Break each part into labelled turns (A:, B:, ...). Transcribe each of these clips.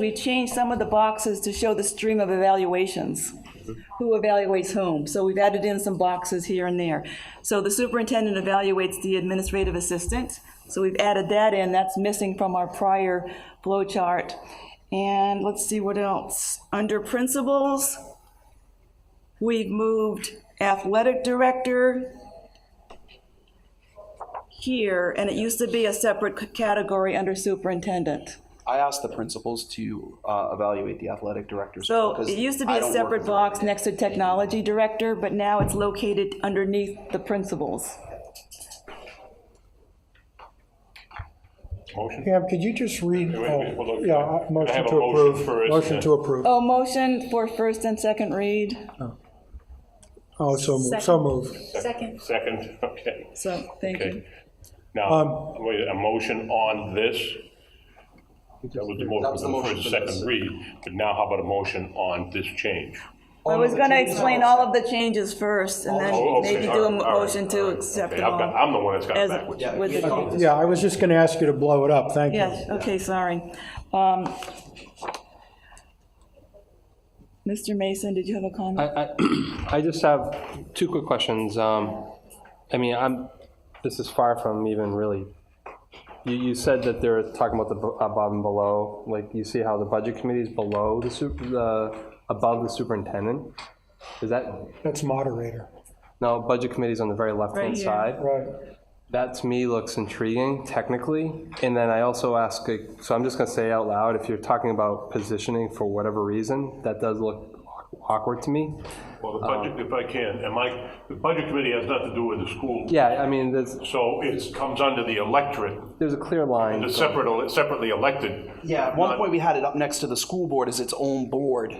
A: We changed some of the boxes to show the stream of evaluations, who evaluates whom. So we've added in some boxes here and there. So the superintendent evaluates the administrative assistant, so we've added that in, that's missing from our prior flow chart. And let's see what else. Under principals, we've moved athletic director here, and it used to be a separate c- category under superintendent.
B: I asked the principals to uh, evaluate the athletic directors.
A: So
B: because
A: it used to be
B: I
A: a
B: don't work
A: separate
B: with them.
A: box next to technology director, but now it's located underneath the principals.
C: Motion?
D: Pam, could you just read,
C: wait a minute, hold
D: oh,
C: on. Can
D: yeah,
C: I
D: uh, motion
C: have a
D: to
C: motion
D: approve,
C: first,
D: motion
C: uh,
D: to approve.
A: Oh, motion for first and second read,
D: Oh, so moved, so moved.
E: Second.
C: Second, okay,
A: so, thank you.
C: okay.
B: Um,
C: Now, wait, a motion on this? That was the
B: That was the
C: motion
B: motion
C: for the
B: for
C: second
B: this.
C: read, but now how about a motion on this change?
A: I was gonna explain all of the changes first, and
C: Oh,
A: then
C: okay,
A: maybe
C: all
A: do a
C: right, all right,
A: motion
C: all
A: to
C: right,
A: accept
C: okay,
A: them
C: I've got-
A: all.
C: I'm the one that's got it
A: As-
C: backwards.
B: Yeah,
A: with-
B: we had all this.
D: Yeah, I was just gonna ask you to blow it up, thank you.
A: Yes, okay, sorry. Um, Mr. Mason, did you have a comment?
F: I, I- I just have two quick questions. Um, I mean, I'm, this is far from even really, you, you said that they're talking about the bu- above and below, like, you see how the budget committee is below the super, the, above the superintendent? Is that,
D: That's moderator,
F: no, budget committee's on the very
A: Right
F: left-hand
A: here.
F: side.
D: right.
F: That to me looks intriguing technically. And then I also ask, like, so I'm just gonna say out loud, if you're talking about positioning for whatever reason, that does look awkward to me.
C: Well, the budget, if I can, and Mike, the budget committee has nothing to do with the school.
F: Yeah, I mean, there's,
C: So it comes under the electorate,
F: there's a clear line.
C: the separate, separately elected.
B: Yeah, at one point we had it up next to the school board as its own board,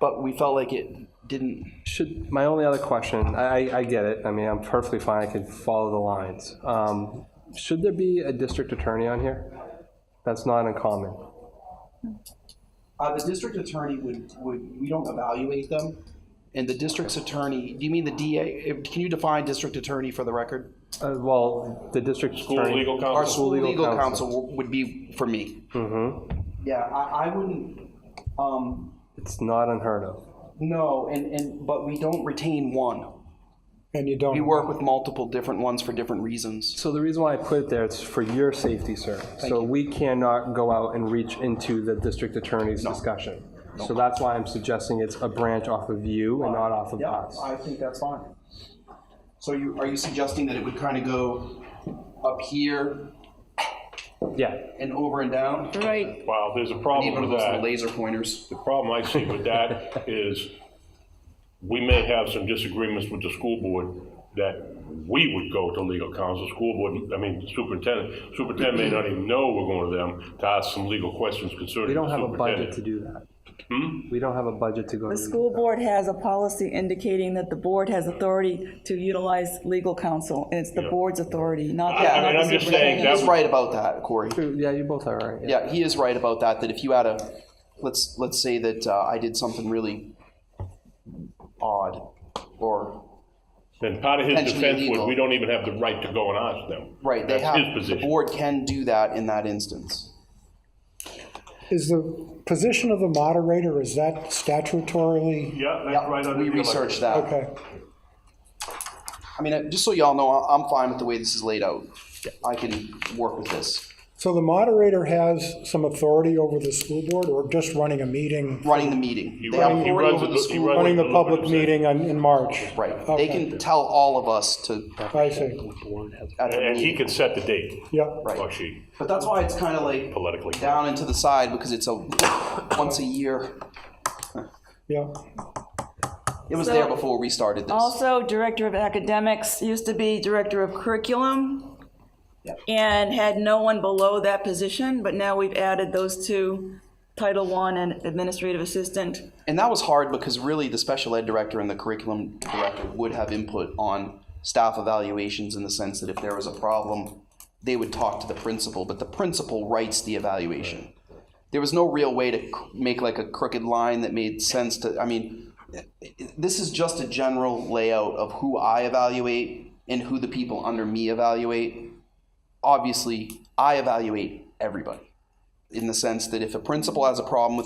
B: but we felt like it didn't.
F: Should, my only other question, I, I- I get it, I mean, I'm perfectly fine, I can follow the lines. Um, Should there be a district attorney on here? That's not uncommon.
B: Uh, the district attorney would, would, we don't evaluate them. And the district's attorney, do you mean the DA? If- Can you define district attorney for the record?
F: Uh, Well, the district attorney.
C: School legal
B: Our
C: counsel,
B: school
F: legal
B: legal
F: counsel.
B: counsel would be for me. Yeah, I, I wouldn't, um,
F: It's not unheard of.
B: no, and, and, but we don't retain one.
D: And you
B: We
D: don't,
B: work with multiple different ones for different reasons.
F: So the reason why I put it there is for your safety, sir. So we cannot go out and reach into the district attorney's discussion. So that's why I'm suggesting it's a branch off of you and not off of us.
B: I think that's fine. So you, are you suggesting that it would kind of go up here
F: Yeah,
B: and over and down?
A: Right,
C: well, there's a
B: Need
C: problem
B: one of
C: with
B: those
C: that.
B: little laser pointers.
C: The problem I see with that is we may have some disagreements with the school board that we would go to legal counsel, school board, I mean superintendent. Superintendent may not even know we're going to them to ask some legal questions
F: we
C: concerning
F: don't
C: the
F: have a budget to
C: superintendent.
F: do that.
C: Hmm?
F: We don't have a budget to go to.
A: the school board has a policy indicating that the board has authority to utilize legal counsel, and it's the board's authority, not the
C: I mean,
A: not
C: I'm
A: the
C: just saying
A: superintendent.
C: that
B: He's
C: would-
B: right about that, Corey.
F: Yeah, you both are right.
B: Yeah, he is right about that, that if you had a, let's, let's say that uh, I did something really odd or,
C: and part of his
B: Potentially
C: defense was,
B: illegal.
C: we don't even have the right to go and ask them.
B: right, they
C: That's his
B: have, the
C: position.
B: board can do that in that instance.
D: is the position of the moderator, is that statutorily,
C: Yeah, that's right
B: Yeah,
C: under
B: we
C: the.
B: researched
C: electorate.
B: that.
D: okay,
B: I mean, uh, just so y'all know, I- I'm fine with the way this is laid out. I can work with this.
D: so the moderator has some authority over the school board, or just running a meeting,
B: Running the meeting. They have
C: run- he
B: authority
C: runs
B: over
C: it-
B: the
C: he
B: school.
C: runs-
D: running the
C: Like,
D: public
C: 100%.
D: meeting on- in March?
B: Right, they
D: Okay.
B: can tell all of us to,
D: I see,
B: at the
C: And he
B: meeting.
C: can set the date,
D: yeah.
C: or she,
B: But that's why it's kind of like
C: politically.
B: down into the side, because it's a, once a year.
D: Yeah,
B: It was there before we started this.
A: Also, Director of Academics used to be Director of Curriculum and had no one below that position, but now we've added those two, Title I and Administrative Assistant.
B: And that was hard because really the special ed director and the curriculum director would have input on staff evaluations in the sense that if there was a problem, they would talk to the principal, but the principal writes the evaluation. There was no real way to c- make like a crooked line that made sense to, I mean, this is just a general layout of who I evaluate and who the people under me evaluate. Obviously, I evaluate everybody in the sense that if a principal has a problem with